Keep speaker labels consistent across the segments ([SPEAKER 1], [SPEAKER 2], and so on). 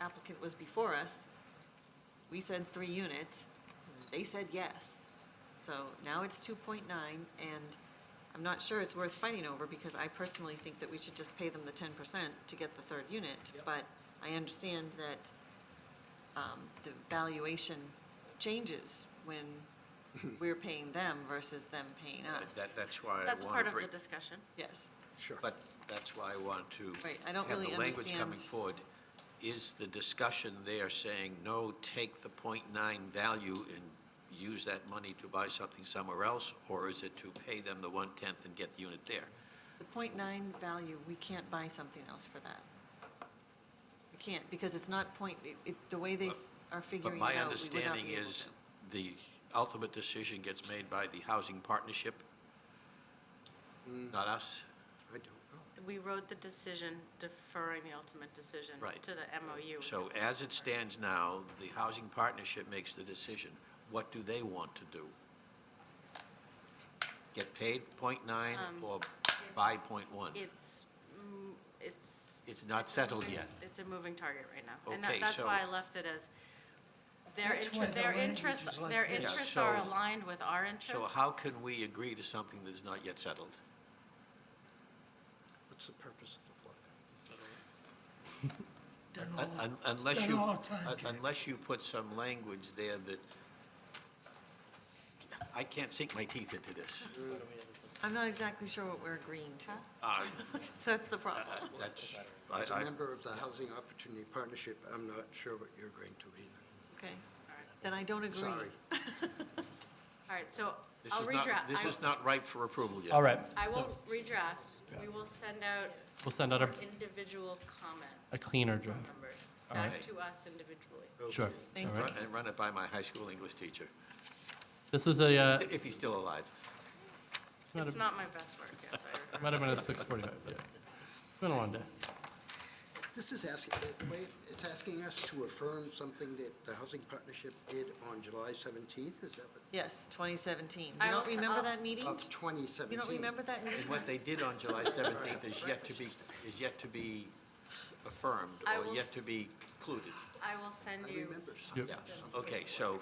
[SPEAKER 1] applicant was before us, we said three units, they said yes. So now it's two point nine, and I'm not sure it's worth fighting over, because I personally think that we should just pay them the ten percent to get the third unit.
[SPEAKER 2] Yep.
[SPEAKER 1] But I understand that, um, the valuation changes when we're paying them versus them paying us.
[SPEAKER 3] That, that's why I want
[SPEAKER 4] That's
[SPEAKER 3] to
[SPEAKER 4] part of
[SPEAKER 3] bring-
[SPEAKER 4] the discussion.
[SPEAKER 1] Yes,
[SPEAKER 3] Sure. But that's why I want to.
[SPEAKER 1] Right, I don't really
[SPEAKER 3] Have the language coming
[SPEAKER 1] understand-
[SPEAKER 3] forward. Is the discussion there saying, no, take the .9 value and use that money to buy something somewhere else? Or is it to pay them the one-tenth and get the unit there?
[SPEAKER 1] the point nine value, we can't buy something else for that. We can't, because it's not point, it- it, the way they are
[SPEAKER 3] But
[SPEAKER 1] figuring it out,
[SPEAKER 3] my
[SPEAKER 1] we would not
[SPEAKER 3] understanding
[SPEAKER 1] be able
[SPEAKER 3] is
[SPEAKER 1] to.
[SPEAKER 3] the ultimate decision gets made by the housing partnership, not us?
[SPEAKER 5] I don't know.
[SPEAKER 4] We wrote the decision deferring the ultimate decision
[SPEAKER 3] Right.
[SPEAKER 4] to the MOU.
[SPEAKER 3] So as it stands now, the housing partnership makes the decision. What do they want to do? Get paid .9
[SPEAKER 4] Um,
[SPEAKER 3] or buy .1?
[SPEAKER 4] It's, mm, it's.
[SPEAKER 3] It's not settled yet.
[SPEAKER 4] It's a moving target right now. And that,
[SPEAKER 3] Okay,
[SPEAKER 4] that's why
[SPEAKER 3] so-
[SPEAKER 4] I left it as, their,
[SPEAKER 2] That's
[SPEAKER 4] inter-
[SPEAKER 2] why the
[SPEAKER 4] their
[SPEAKER 2] language
[SPEAKER 4] interests,
[SPEAKER 2] is like
[SPEAKER 4] their
[SPEAKER 2] this.
[SPEAKER 3] Yeah,
[SPEAKER 4] interests
[SPEAKER 3] so-
[SPEAKER 4] are aligned with our interests.
[SPEAKER 3] So how can we agree to something that is not yet settled?
[SPEAKER 5] What's the purpose of the flag?
[SPEAKER 2] Done
[SPEAKER 3] Un-
[SPEAKER 2] all-
[SPEAKER 3] un- Unless
[SPEAKER 2] done
[SPEAKER 3] you,
[SPEAKER 2] all the time,
[SPEAKER 3] un-
[SPEAKER 2] Jack.
[SPEAKER 3] unless you put some language there that, I can't sink my teeth into this.
[SPEAKER 1] I'm not exactly sure what we're agreeing to.
[SPEAKER 3] Uh,
[SPEAKER 1] That's the problem.
[SPEAKER 3] That's,
[SPEAKER 5] As a
[SPEAKER 3] I,
[SPEAKER 5] member of the Housing Opportunity Partnership, I'm not sure what you're agreeing to either.
[SPEAKER 1] Okay, then I don't agree.
[SPEAKER 5] Sorry.
[SPEAKER 4] All right, so
[SPEAKER 3] this
[SPEAKER 4] I'll
[SPEAKER 3] is not,
[SPEAKER 4] redraft.
[SPEAKER 3] this
[SPEAKER 4] I-
[SPEAKER 3] is not ripe for approval yet.
[SPEAKER 6] All right,
[SPEAKER 4] I
[SPEAKER 6] so
[SPEAKER 4] will redraft. We will send out
[SPEAKER 6] we'll send out a,
[SPEAKER 4] individual comment
[SPEAKER 6] a cleaner draft.
[SPEAKER 4] numbers
[SPEAKER 6] All
[SPEAKER 4] back
[SPEAKER 6] right.
[SPEAKER 4] to us individually.
[SPEAKER 6] Sure.
[SPEAKER 1] Thank
[SPEAKER 6] All
[SPEAKER 1] you.
[SPEAKER 6] right.
[SPEAKER 3] Run- And run it by my high school English teacher,
[SPEAKER 6] This is a, uh,
[SPEAKER 3] if he's still alive.
[SPEAKER 6] it's not
[SPEAKER 4] It's
[SPEAKER 6] a,
[SPEAKER 4] not my best work, yes, I remember.
[SPEAKER 6] might have been at 6:45, yeah. It's been a long day.
[SPEAKER 5] This is asking, the way- it's asking us to affirm something that the Housing Partnership did on July 17th, is that what?
[SPEAKER 1] Yes, 2017.
[SPEAKER 4] I
[SPEAKER 1] You don't
[SPEAKER 4] also-
[SPEAKER 1] remember
[SPEAKER 4] I'll-
[SPEAKER 1] that meeting?
[SPEAKER 5] Of 2017.
[SPEAKER 1] You don't remember that meeting?
[SPEAKER 3] And what they did on July 17th is yet to be, is yet to be affirmed
[SPEAKER 4] I
[SPEAKER 3] or
[SPEAKER 4] will
[SPEAKER 3] yet to
[SPEAKER 4] s-
[SPEAKER 3] be concluded.
[SPEAKER 4] I will send
[SPEAKER 5] I
[SPEAKER 4] you.
[SPEAKER 5] remember something.
[SPEAKER 6] Yep,
[SPEAKER 3] Yeah, okay, so,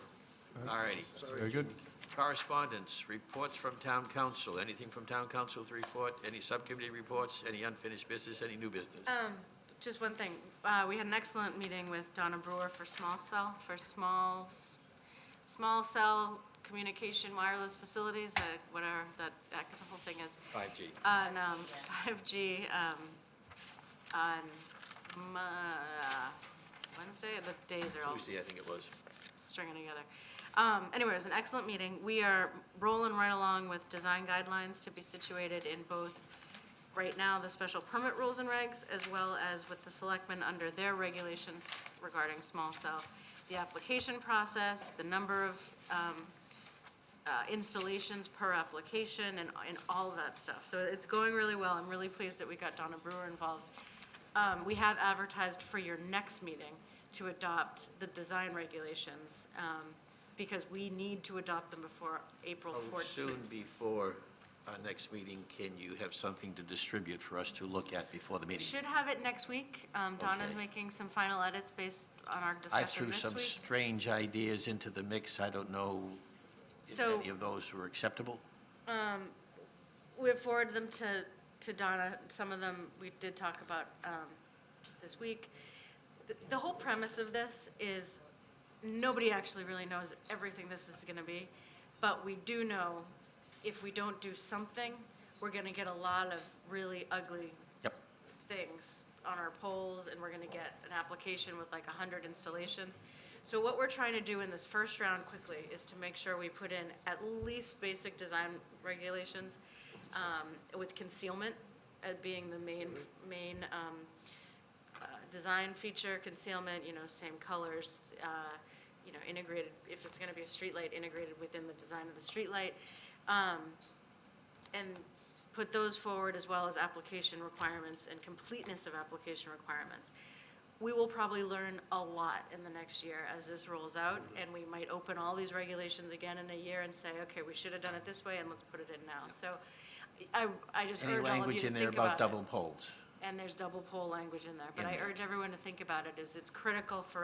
[SPEAKER 3] all righty.
[SPEAKER 6] Very good.
[SPEAKER 3] Correspondence, reports from town council, anything from town council to report, any subcommittee reports, any unfinished business, any new business?
[SPEAKER 4] Um, Just one thing, Uh, we had an excellent meeting with Donna Brewer for small cell, for small, s- small cell communication wireless facilities, uh, whatever that, that whole thing is.
[SPEAKER 3] 5G.
[SPEAKER 4] On um, 5G, um, on Mo- uh, Wednesday, the days are all
[SPEAKER 3] Tuesday, I think it was.
[SPEAKER 4] stringing together. Um, anyway, it was an excellent meeting. We are rolling right along with design guidelines to be situated in both, right now, the special permit rules and regs, as well as with the selectmen under their regulations regarding small cell, the application process, the number of, um, uh, installations per application and, and all of that stuff. So it's going really well. I'm really pleased that we got Donna Brewer involved. Um, we have advertised for your next meeting to adopt the design regulations, um, because we need to adopt them before April
[SPEAKER 3] Oh,
[SPEAKER 4] fourteenth.
[SPEAKER 3] Soon before our next meeting, can you have something to distribute for us to look at before the meeting?
[SPEAKER 4] Should have it next week. Um, Donna's
[SPEAKER 3] Okay.
[SPEAKER 4] making some final edits based on our
[SPEAKER 3] I
[SPEAKER 4] discussion
[SPEAKER 3] threw
[SPEAKER 4] this
[SPEAKER 3] some
[SPEAKER 4] week.
[SPEAKER 3] strange ideas into the mix. I don't know if
[SPEAKER 4] So-
[SPEAKER 3] any of those were acceptable.
[SPEAKER 4] We've forwarded them to, to Donna. Some of them we did talk about um, this week. The- The whole premise of this is nobody actually really knows everything this is going to be, but we do know if we don't do something, we're going to get a lot of really ugly
[SPEAKER 3] Yep.
[SPEAKER 4] things on our polls, and we're gonna get an application with like hundred installations. So what we're trying to do in this first round quickly is to make sure we put in at least basic design regulations, um, with concealment uh, being the main, main, um, uh, design feature, concealment, you know, same colors, uh, you know, integrated, if it's gonna be a streetlight, integrated within the design of the streetlight. Um, and put those forward as well as application requirements and completeness of application requirements. We will probably learn a lot in the next year as this rolls out, and we might open all these regulations again in a year and say, okay, we should have done it this way, and let's put it in now. So I, I just
[SPEAKER 3] Any
[SPEAKER 4] urge all of you
[SPEAKER 3] language
[SPEAKER 4] to
[SPEAKER 3] in there
[SPEAKER 4] think
[SPEAKER 3] about
[SPEAKER 4] about it.
[SPEAKER 3] double polls?
[SPEAKER 4] and there's double pole language in there. But
[SPEAKER 3] In
[SPEAKER 4] I
[SPEAKER 3] there.
[SPEAKER 4] urge everyone to think about it, is it's critical for